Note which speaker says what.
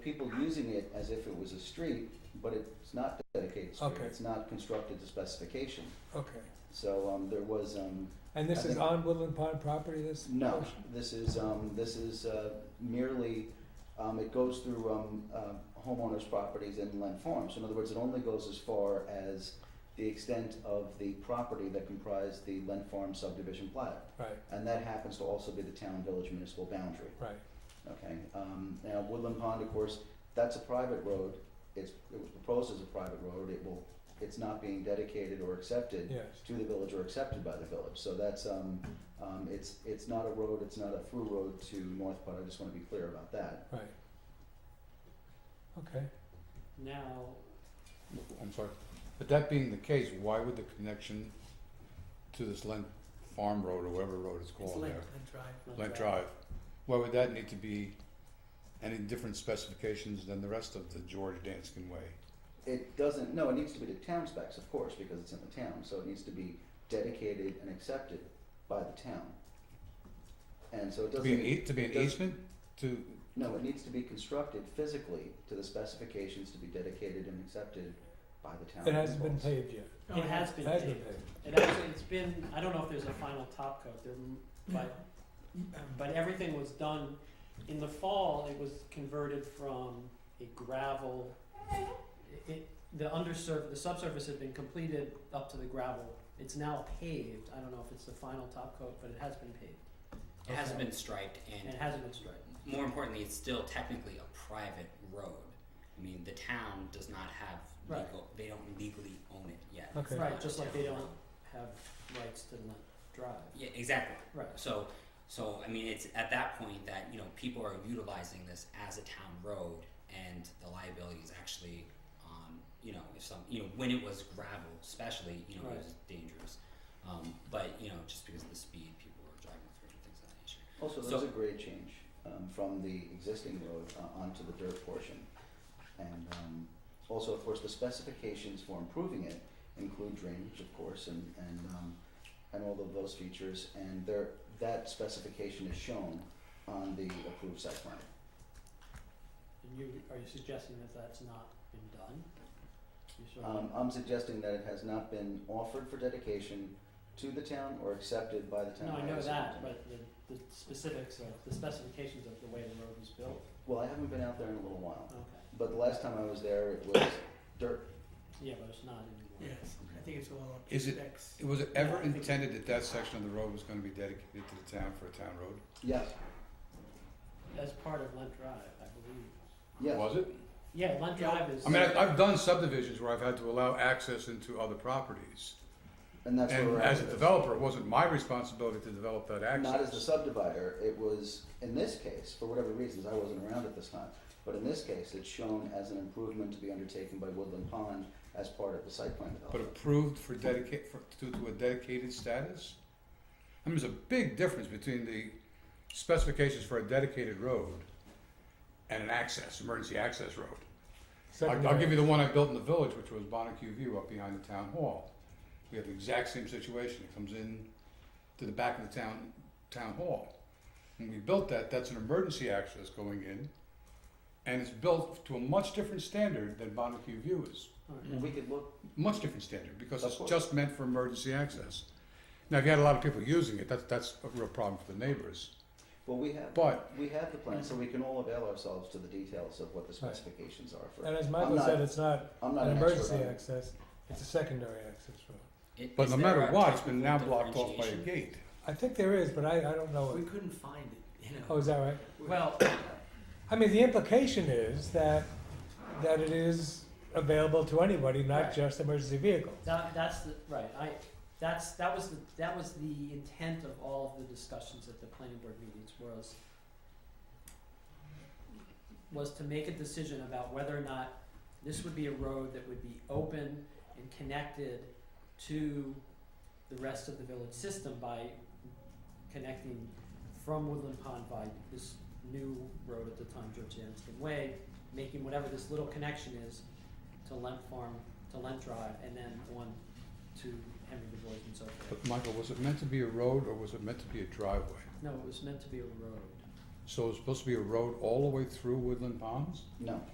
Speaker 1: people using it as if it was a street, but it's not dedicated street.
Speaker 2: Okay.
Speaker 1: It's not constructed to specification.
Speaker 2: Okay.
Speaker 1: So, um, there was, um,
Speaker 2: And this
Speaker 1: I
Speaker 2: is
Speaker 1: think-
Speaker 2: on Woodland Pond property, this?
Speaker 1: no,
Speaker 2: portion?
Speaker 1: this is, um, this is, uh, merely, um, it goes through, um, uh, homeowners' properties and land farms. In other words, it only goes as far as the extent of the property that comprised the land farm subdivision plat.
Speaker 2: Right,
Speaker 1: And that happens to also be the town-village municipal boundary.
Speaker 2: right,
Speaker 1: Okay, um, now Woodland Pond, of course, that's a private road, it's, it was proposed as a private road, it will, it's not being dedicated or accepted
Speaker 2: yes,
Speaker 1: to the village or accepted by the village, so that's, um, um, it's, it's not a road, it's not a through road to North Putt, I just wanna be clear about that.
Speaker 2: right. Okay,
Speaker 3: Now,
Speaker 4: I'm sorry, but that being the case, why would the connection to this Lent Farm Road or whatever road it's
Speaker 3: it's
Speaker 4: called
Speaker 3: Lent,
Speaker 4: there?
Speaker 3: Lent Drive.
Speaker 4: Lent Drive, why would that need to be any different specifications than the rest of the George Danskin Way?
Speaker 1: It doesn't, no, it needs to be to town specs, of course, because it's in the town, so it needs to be dedicated and accepted by the town. And so it
Speaker 4: To
Speaker 1: doesn't.
Speaker 4: be an ea- to be an
Speaker 1: doesn't-
Speaker 4: easement, to,
Speaker 1: No, it needs to be constructed physically to the specifications to be dedicated and accepted by the town.
Speaker 2: it hasn't been
Speaker 1: officials.
Speaker 2: paved yet,
Speaker 3: It has
Speaker 2: it
Speaker 3: been
Speaker 2: has been
Speaker 3: paved.
Speaker 2: paved,
Speaker 3: It actually, it's been, I don't know if there's a final top coat, there, m- but, but everything was done. In the fall, it was converted from a gravel, it, the undersurf, the subsurface had been completed up to the gravel. It's now paved, I don't know if it's the final top coat, but it has been paved,
Speaker 5: It hasn't
Speaker 2: Okay.
Speaker 5: been striped,
Speaker 3: and it
Speaker 5: and
Speaker 3: hasn't been striped.
Speaker 5: more importantly, it's still technically a private road. I mean, the town does not have
Speaker 3: Right.
Speaker 5: legal; they don't legally own it yet.
Speaker 2: Okay.
Speaker 5: It's
Speaker 3: Right,
Speaker 5: not
Speaker 3: just
Speaker 5: a
Speaker 3: like they
Speaker 5: town
Speaker 3: don't
Speaker 5: road.
Speaker 3: have rights to Lent Drive.
Speaker 5: Yeah, exactly.
Speaker 3: Right.
Speaker 5: So, so I mean, it's at that point that you know people are utilizing this as a town road, and the liability is actually on you know if some you know when it was gravel, especially you know
Speaker 3: Right.
Speaker 5: it was dangerous. Um, but you know just because of the speed people were driving through and things of that nature.
Speaker 1: Also,
Speaker 5: So-
Speaker 1: there's a grade change um, from the existing road uh, onto the dirt portion. And um, also, of course, the specifications for improving it include drainage, of course, and, and, um, and all of those features. And there, that specification is shown on the approved site plan.
Speaker 3: And you, are you suggesting that that's not been done? You sort of-
Speaker 1: Um, I'm suggesting that it has not been offered for dedication to the town or accepted by the town.
Speaker 3: No, I know
Speaker 1: as
Speaker 3: that,
Speaker 1: something.
Speaker 3: but the, the specifics of, the specifications of the way the road was built,
Speaker 1: Well, I haven't been out there in a little while,
Speaker 3: okay,
Speaker 1: but the last time I was there, it was dirt.
Speaker 3: yeah, but it's not anymore.
Speaker 6: Yes, I think it's all up to
Speaker 4: Is it-
Speaker 6: specs.
Speaker 4: was it
Speaker 3: Yeah,
Speaker 4: ever
Speaker 3: I think-
Speaker 4: intended that that section of the road was gonna be dedicated to the town for a town road?
Speaker 1: Yes,
Speaker 3: As part of Lent Drive, I believe.
Speaker 1: yes.
Speaker 4: Was it?
Speaker 3: Yeah, Lent
Speaker 6: Yeah.
Speaker 3: Drive is.
Speaker 4: I mean, I've, I've done subdivisions where I've had to allow access into other properties.
Speaker 1: And that's where
Speaker 4: And
Speaker 1: we're at.
Speaker 4: as a
Speaker 1: with this.
Speaker 4: developer, it wasn't my responsibility to develop that access.
Speaker 1: Not as the subdivider, it was, in this case, for whatever reasons, I wasn't around at this time, but in this case, it's shown as an improvement to be undertaken by Woodland Pond as part of the site plan
Speaker 4: But
Speaker 1: development.
Speaker 4: approved for dedicate, for, to, to a dedicated status? I mean, there's a big difference between the specifications for a dedicated road and an access, emergency access road. I'll, I'll give you the one I built in the village, which was Bonnecue View up behind the town hall. We have the exact same situation. It comes in to the back of the town, town hall. When we built that, that's an emergency access going in, and it's built to a much different standard than Bonnecue View is.
Speaker 3: Alright.
Speaker 1: And we could look,
Speaker 4: Much different standard, because
Speaker 1: Of
Speaker 4: it's
Speaker 1: course.
Speaker 4: just meant for emergency access. Now, if you had a lot of people using it, that's, that's a real problem for the neighbors.
Speaker 1: well, we have,
Speaker 4: But
Speaker 1: we have the plan, so we can all avail ourselves to the details of what the
Speaker 2: Right.
Speaker 1: specifications are
Speaker 2: And
Speaker 1: for.
Speaker 2: as
Speaker 1: I'm
Speaker 2: Michael
Speaker 1: not-
Speaker 2: said, it's not
Speaker 1: I'm not
Speaker 2: an
Speaker 1: an expert
Speaker 2: emergency
Speaker 1: on it.
Speaker 2: access, it's a secondary access road.
Speaker 5: It-
Speaker 4: But
Speaker 5: is
Speaker 4: no
Speaker 5: there
Speaker 4: matter
Speaker 5: a
Speaker 4: what, it's been now
Speaker 5: technical
Speaker 4: blocked off by a
Speaker 5: differentiation?
Speaker 4: gate.
Speaker 2: I think there is, but I, I don't know
Speaker 6: We
Speaker 2: it.
Speaker 6: couldn't find it, you know.
Speaker 2: Oh, is that right?
Speaker 3: Well,
Speaker 2: I mean, the implication is that, that it is available to anybody, not
Speaker 3: Right.
Speaker 2: just emergency vehicles.
Speaker 3: that, that's the, right, I, that's, that was the, that was the intent of all of the discussions at the planning board meetings was was to make a decision about whether or not this would be a road that would be open and connected to the rest of the village system by connecting from Woodland Pond by this new road at the time, George Anskin Way, making whatever this little connection is to Lent Farm, to Lent Drive, and then on to Henry DeBois and so forth.
Speaker 4: But Michael, was it meant to be a road or was it meant to be a driveway?
Speaker 3: No, it was meant to be a road.
Speaker 4: So it's supposed to be a road all the way through Woodland Palms?
Speaker 1: No.